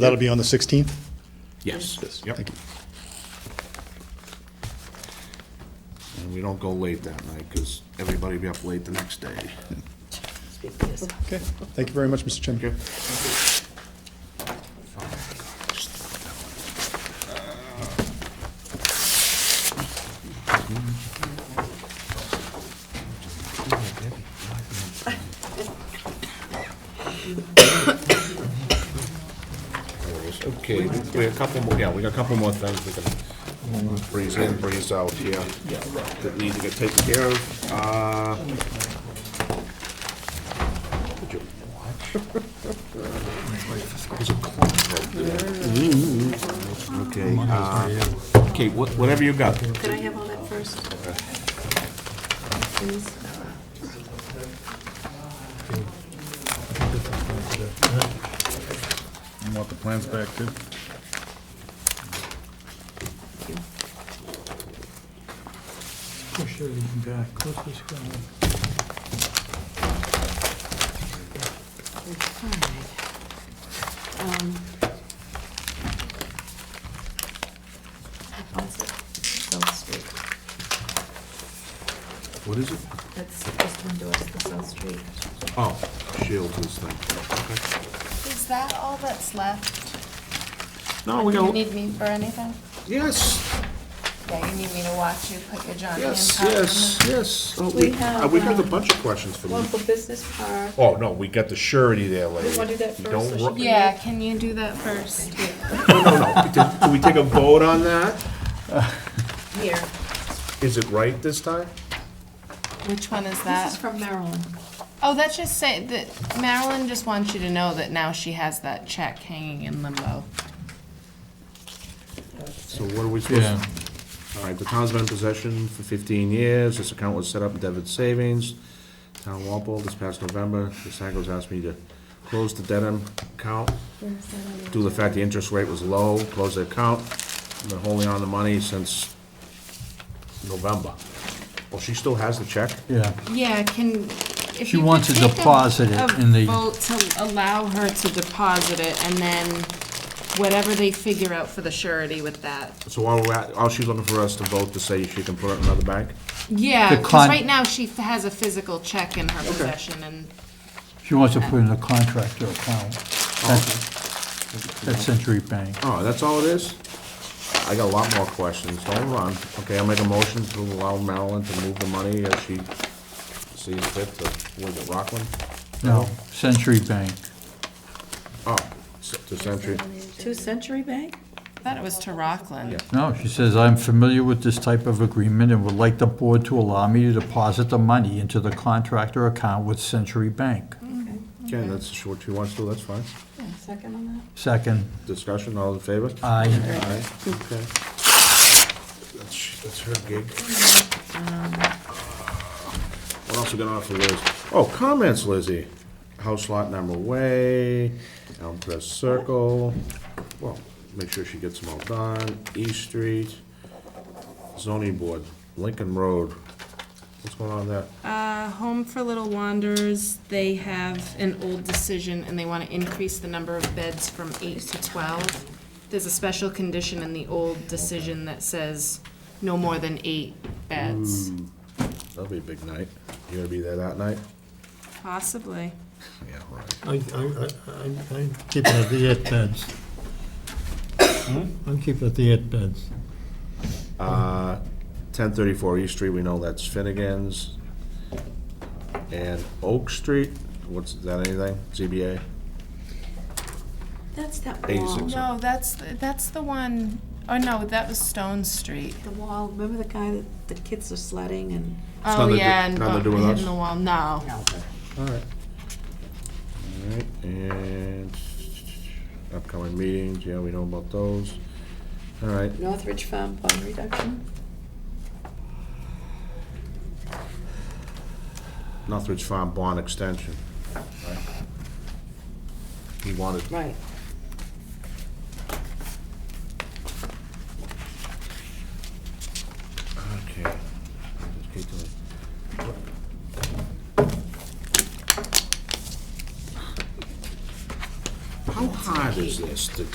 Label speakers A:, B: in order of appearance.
A: That'll be on the 16th?
B: Yes. Yep.
A: Thank you.
B: And we don't go late that night, because everybody be up late the next day.
A: Okay, thank you very much, Mr. Chairman.
B: Okay. Okay, we have a couple more, yeah, we got a couple more things we can breeze in, breeze out here that need to get taken care of. Uh, Okay, uh, okay, wha- whatever you got.
C: Could I have all that first? Please?
D: You want the plans back too?
E: Push everything back, close this down.
C: Alright. Um, that's it. South Street.
B: What is it?
C: That's just endorse the South Street.
B: Oh, Shields is thing.
F: Is that all that's left?
B: No, Oh, we
F: Do you
B: got,
F: need me for anything?
B: yes,
F: Yeah, you need me to watch you put your Johnny and
B: yes,
F: Pop in
B: yes, yes. Oh,
C: We have,
B: uh, We got a
C: um,
B: bunch of questions for you.
C: Local business park.
B: Oh, no, we got the surety there later.
C: wanna do that
B: You
C: first,
B: don't
C: or should
B: ru-
F: the- Yeah, can you do that first?
B: No, no, no. Did- Do we take a vote on that?
C: Here.
B: Is it right this time?
F: Which one is
C: This is
F: that?
C: from Maryland.
F: Oh, that's just say, that Marilyn just wants you to know that now she has that check hanging in limbo.
B: So what are we supposed to? All right, the town's been in possession for fifteen years, this account was set up in debit savings, town Walpole, this past November, the Sagos asked me to close the Dedham account due to the fact the interest rate was low, close the account, been holding on the money since November. Well, she still has the check?
E: Yeah,
F: Yeah, can, if you
E: She wants
F: could
E: to
F: take a-
E: deposit it in the-
F: A vote to allow her to deposit it, and then whatever they figure out for the surety with that.
B: So while we're at, all she's looking for us to vote to say she can put it in another bank?
F: Yeah,
E: The
F: because
E: con-
F: right now she has a physical check in her possession, and
E: she wants to put in a contractor account. That Century Bank.
B: Oh, that's all it is? I got a lot more questions, don't run. Okay, I'll make a motion to allow Marilyn to move the money as she sees fit to, was it Rockland?
E: No, Century Bank.
B: Oh, s- to Century.
C: Two Century Bank?
F: I thought it was to Rockland.
E: No, she says, "I'm familiar with this type of agreement and would like the board to allow me to deposit the money into the contractor account with Century Bank."
B: Okay, that's what she wants to, that's fine.
C: Second on that?
E: Second,
B: Discussion, all in favor?
E: aye.
B: Aye, okay. That's, that's her gig. Um, What else we got on for Liz? Oh, comments, Lizzie. House lot number way, Elm Crest Circle, well, make sure she gets them all done, East Street, zoning board, Lincoln Road. What's going on there?
F: Uh, Home for Little Wanderers, they have an old decision and they want to increase the number of beds from eight to twelve. There's a special condition in the old decision that says no more than eight beds.
B: That'll be a big night. You gonna be there that night?
F: Possibly.
B: Yeah, right.
G: I, I, I- I, I'm keeping at the eight beds. I'm keeping at the eight beds.
B: Uh, Ten thirty-four East Street, we know that's Finnegan's. And Oak Street, what's, is that anything, ZBA?
C: That's that wall.
B: 86.
F: No, that's, that's the one, oh no, that was Stone Street.
C: The wall, remember the guy that the kids are sledding and
F: Oh,
B: nothing to-
F: yeah, and
B: nothing to do with
F: hitting
B: us.
F: the wall, no.
B: Alright. Alright, and upcoming meetings, yeah, we know about those. Alright,
C: Northridge Farm Pond Reduction?
B: Northridge Farm Bond Extension. He wanted,
C: Right.
B: okay. Just keep doing it. How hard there's this, there's